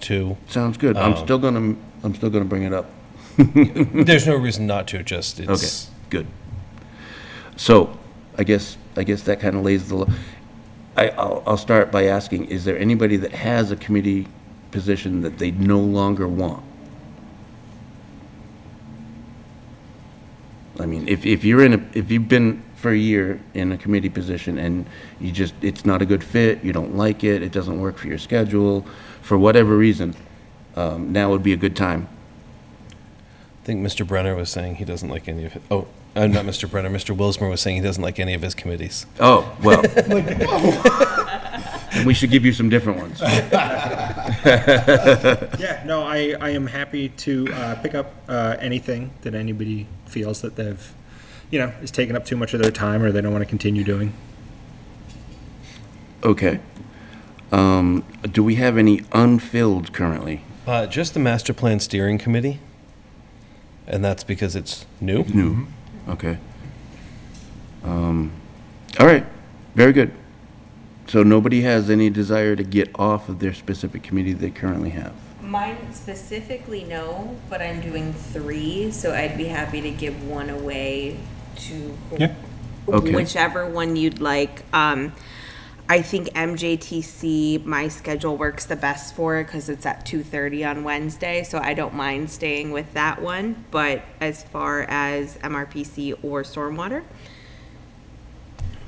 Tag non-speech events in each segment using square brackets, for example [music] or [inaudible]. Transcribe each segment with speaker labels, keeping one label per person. Speaker 1: [laughs] to.
Speaker 2: Sounds good. I'm still gonna, I'm still gonna bring it up.
Speaker 1: There's no reason not to, just
Speaker 2: Okay,
Speaker 1: it's,
Speaker 2: good. So, I guess, I guess that kind of lays the, lo- I, I'll, I'll start by asking, is there anybody that has a committee position that they no longer want? I mean, if, if you're in a, if you've been for a year in a committee position and you just, it's not a good fit, you don't like it, it doesn't work for your schedule, for whatever reason, um, now would be a good time.
Speaker 1: I think Mr. Brenner was saying he doesn't like any of, it. oh, uh, not Mr. Brenner, Mr. Wilsmer was saying he doesn't like any of his committees.
Speaker 2: Oh, well. Then we should give you some different ones.
Speaker 3: Yeah, no, I, I am happy to uh, pick up uh, anything that anybody feels that they've, you know, is taking up too much of their time or they don't want to continue doing.
Speaker 2: Okay. Um, do we have any unfilled currently?
Speaker 1: Uh, just the Master Plan Steering Committee, and that's because it's new.
Speaker 2: New. Okay. Um, all right. Very good. So nobody has any desire to get off of their specific committee they currently have.
Speaker 4: Mine specifically, no, but I'm doing three, so I'd be happy to give one away to
Speaker 3: Yeah.
Speaker 2: Okay.
Speaker 4: whichever one you'd like. Um, I think MJTC, my schedule works the best for it because it's at two thirty on Wednesday, so I don't mind staying with that one. But as far as MRPC or Stormwater,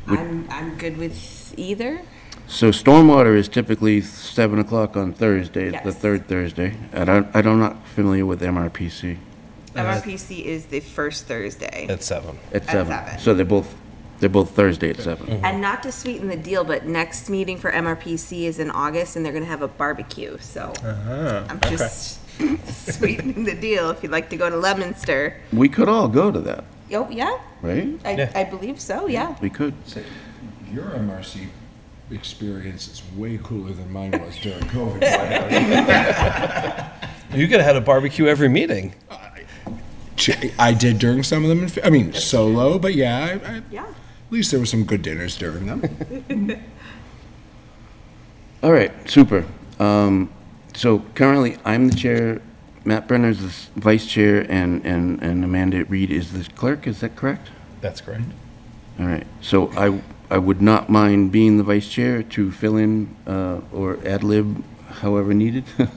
Speaker 4: I'm, I'm good with either.
Speaker 2: So stormwater is typically seven o'clock on Thursday, the
Speaker 4: Yes.
Speaker 2: third Thursday. And I, I don't- I'm not familiar with MRPC
Speaker 4: MRPC is the first Thursday.
Speaker 1: At seven.
Speaker 2: at
Speaker 4: At
Speaker 2: seven.
Speaker 4: seven.
Speaker 2: So they're both, they're both Thursday at seven.
Speaker 4: And not to sweeten the deal, but next meeting for MRPC is in August, and they're gonna have a barbecue, so
Speaker 3: Uh,
Speaker 4: I'm just [laughs] sweetening the deal if you'd like to go to Lemonster.
Speaker 2: We could all go to that,
Speaker 4: Oh, yeah,
Speaker 2: right?
Speaker 4: I,
Speaker 1: Yeah.
Speaker 4: I believe so, yeah.
Speaker 2: We could.
Speaker 5: Your MRC experience is way cooler than mine was during COVID.
Speaker 1: You could have had a barbecue every meeting.
Speaker 5: I did during some of them. in fa- I mean, solo, but yeah, I, I, at
Speaker 4: Yeah.
Speaker 5: least there were some good dinners during them.
Speaker 2: All right, super. Um, so currently, I'm the chair, Matt Brenner's the s- vice chair, and, and, and Amanda Reed is the clerk, is that correct?
Speaker 1: That's correct.
Speaker 2: All right, so I, I would not mind being the vice chair to fill in, uh, or ad lib however needed. [laughs]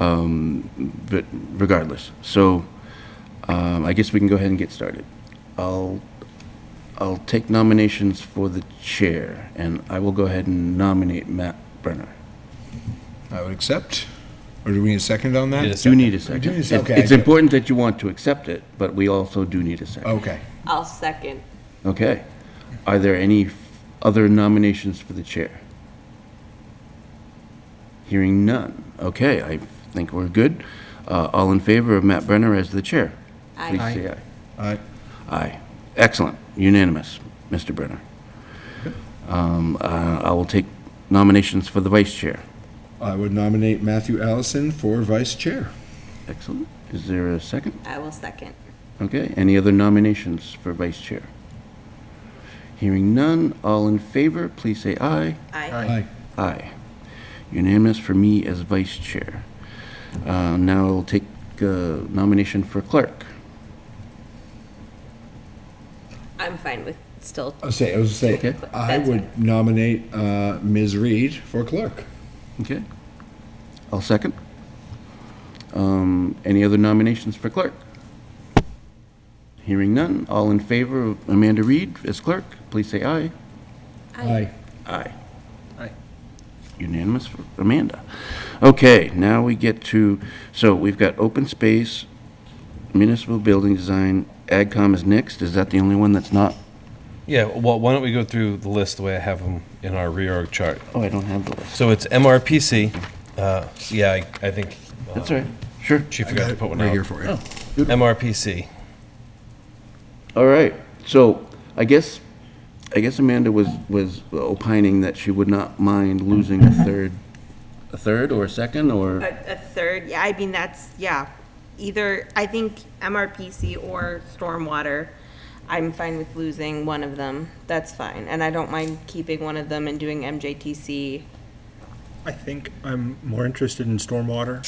Speaker 2: Um, but regardless, so, um, I guess we can go ahead and get started. I'll, I'll take nominations for the chair, and I will go ahead and nominate Matt Brenner.
Speaker 5: I would accept. Or do we need a second on that?
Speaker 1: Yes.
Speaker 2: Do need a
Speaker 5: We
Speaker 2: second.
Speaker 5: do need a
Speaker 2: It's-
Speaker 5: second.
Speaker 2: It's important that you want to accept it, but we also do need a second.
Speaker 5: Okay.
Speaker 4: I'll second.
Speaker 2: Okay. Are there any f- other nominations for the chair? Hearing none. Okay, I think we're good. Uh, All in favor of Matt Brenner as the chair?
Speaker 4: Aye.
Speaker 2: Please say aye.
Speaker 5: Uh,
Speaker 2: Aye. Excellent. Unanimous, Mr. Brenner. Um, uh, I will take nominations for the vice chair.
Speaker 5: I would nominate Matthew Allison for vice chair.
Speaker 2: Excellent. Is there a second?
Speaker 4: I will second.
Speaker 2: Okay, any other nominations for vice chair? Hearing none, all in favor, please say aye.
Speaker 4: Aye.
Speaker 5: Aye.
Speaker 2: Aye. Unanimous for me as vice chair. Uh, Now I'll take uh, nomination for clerk.
Speaker 4: I'm fine with still.
Speaker 5: I say, I was gonna say,
Speaker 2: Okay.
Speaker 5: I
Speaker 4: That's
Speaker 5: would nominate uh, Ms. Reed for clerk.
Speaker 2: Okay? I'll second. Um, Any other nominations for clerk? Hearing none, all in favor of Amanda Reed as clerk, please say aye.
Speaker 5: Aye.
Speaker 2: Aye.
Speaker 3: Aye.
Speaker 2: Unanimous for Amanda. Okay, now we get to, so we've got open space, municipal building design, AgCom is next, is that the only one that's not?
Speaker 1: Yeah, well, why don't we go through the list the way I have them in our reorg chart?
Speaker 2: Oh, I don't have the list.
Speaker 1: So it's MRPC, uh, yeah, I, I think uh,
Speaker 2: That's all right, sure.
Speaker 1: she forgot to put one
Speaker 5: Right here
Speaker 1: out.
Speaker 5: for you.
Speaker 1: MRPC,
Speaker 2: All right, so I guess, I guess Amanda was, was opining that she would not mind losing a third, a third or a second, or?
Speaker 4: A, a third, yeah, I mean, that's, yeah. Either, I think MRPC or Stormwater, I'm fine with losing one of them. That's fine. And I don't mind keeping one of them and doing MJTC
Speaker 3: I think I'm more interested in stormwater